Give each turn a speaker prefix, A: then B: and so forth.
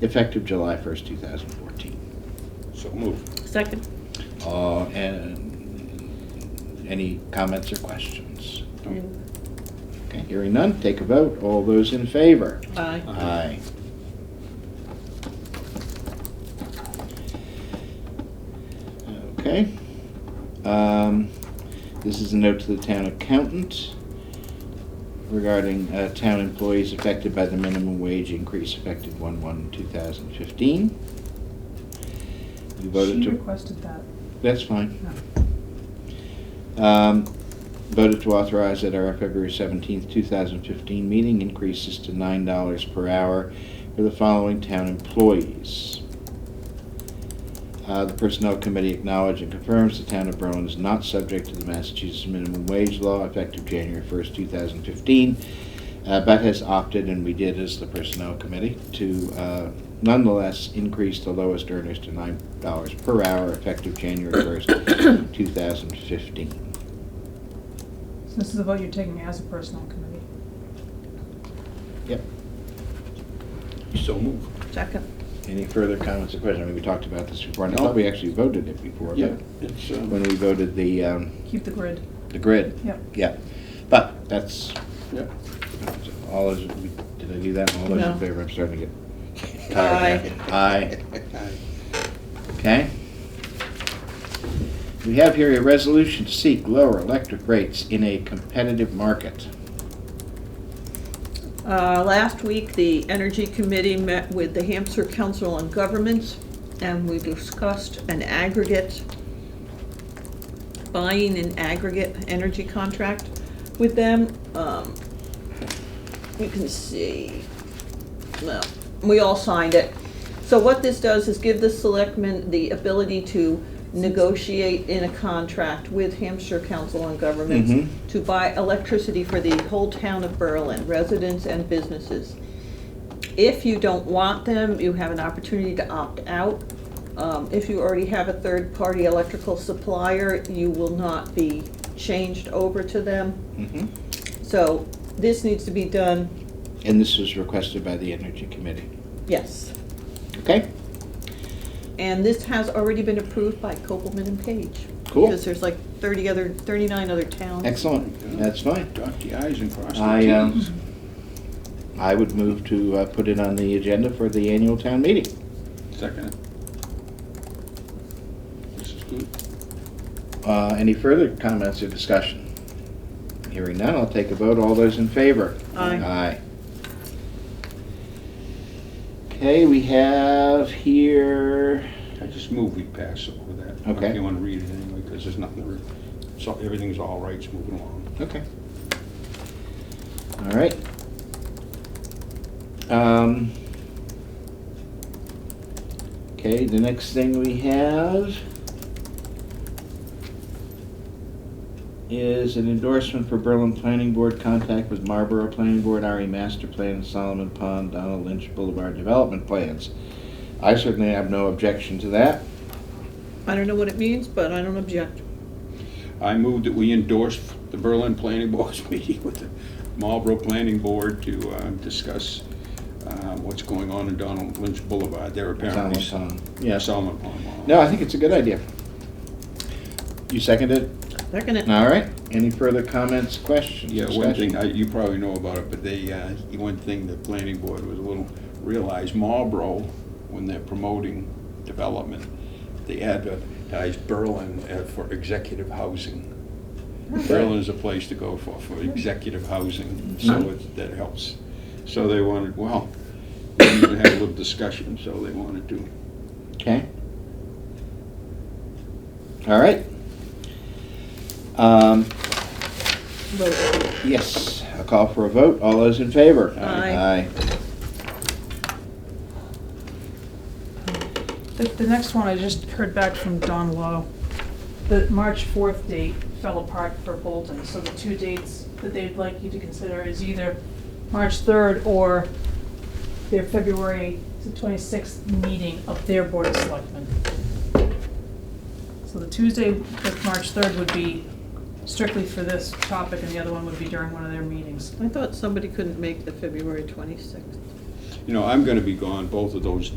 A: effective July 1st, 2014.
B: So move.
C: Second.
A: Uh, And any comments or questions? Okay, hearing none, take a vote. All those in favor?
C: Aye.
A: Aye. Okay. Um, This is a note to the town accountant regarding uh, town employees affected by the minimum wage increase effective one one two thousand fifteen. You voted to,
D: She requested that.
A: that's fine.
D: No.
A: Um, Voted to authorize at our February 17th, 2015 meeting increases to $9 per hour for the following town employees. Uh, The Personnel Committee acknowledges and confirms the town of Berlin is not subject to the Massachusetts minimum wage law effective January 1st, 2015, uh, but has opted, and we did as the Personnel Committee, to uh, nonetheless increase the lowest earners to $9 per hour effective January 1st, 2015.
D: So This is the vote you're taking as a personnel committee.
A: Yep.
B: So move.
C: Second.
A: Any further comments or questions? I mean, we talked about this before, and I thought we actually voted it before,
B: Yeah,
A: but
B: it's, uh,
A: when we voted the, um,
D: Keep the grid.
A: the grid.
D: Yep.
A: Yeah, but that's,
B: yeah.
A: all those, did I do that? All those in
C: No.
A: favor, I'm starting to get tired. now. Aye. Okay. We have here a resolution to seek lower electric rates in a competitive market.
C: Uh, Last week, the Energy Committee met with the Hampshire Council on Governments, and we discussed an aggregate, buying an aggregate energy contract with them. Um, You can see, well, we all signed it. So what this does is give the selectmen the ability to negotiate in a contract with Hampshire Council on Governments
A: Mhm.
C: to buy electricity for the whole town of Berlin, residents and businesses. If you don't want them, you have an opportunity to opt out. Um, If you already have a third-party electrical supplier, you will not be changed over to them.
A: Mhm.
C: So this needs to be done,
A: And this was requested by the Energy Committee.
C: yes.
A: Okay?
C: And this has already been approved by Copeland and Page.
A: Cool.
C: Because there's like 30 other, 39 other towns.
A: Excellent. That's fine.
B: Dot the i's and cross
A: I,
B: the
A: um,
B: t's.
A: I would move to uh, put it on the agenda for the annual town meeting.
B: Second. This is good.
A: Uh, Any further comments or discussion? Hearing none, I'll take a vote. All those in favor?
C: Aye.
A: Aye. Okay, we have here,
B: I just move we pass over that. I
A: Okay.
B: don't want to read it anyway, because there's nothing, to re- so everything's all right, it's moving along.
A: okay. All right. Um, Okay, the next thing we have is an endorsement for Berlin Planning Board, contact with Marlboro Planning Board, RE Master Plan, Solomon Pond, Donald Lynch Boulevard Development Plans. I certainly have no objection to that.
C: I don't know what it means, but I don't object.
B: I move that we endorse the Berlin Planning Board's meeting with the Marlboro Planning Board to uh, discuss uh, what's going on in Donald Lynch Boulevard. They're apparently.
A: Solomon Pond. Yeah.
B: Solomon Pond. Mall.
A: No, I think it's a good idea. You second it?
C: They're gonna,
A: All right. Any further comments, questions?
B: Yeah, one
A: discussion?
B: thing, I- you probably know about it, but they, uh, one thing the planning board was a little, realized Marlboro, when they're promoting development, they advertise Berlin uh, for executive housing. Berlin is a place to go for, for executive housing, so it- that helps. So they wanted, well, we need to have a little discussion, so they wanted to.
A: Okay. All right. Um,
C: vote.
A: yes, a call for a vote. All those in favor?
C: Aye.
D: The, the next one, I just heard back from Don Lowe. The March 4th date fell apart for Bolton, so the two dates that they'd like you to consider is either March 3rd or their February 26th meeting of their Board of Selectmen. So the Tuesday, of March 3rd would be strictly for this topic, and the other one would be during one of their meetings.
C: I thought somebody couldn't make the February 26th.
B: you know, I'm gonna be gone both of those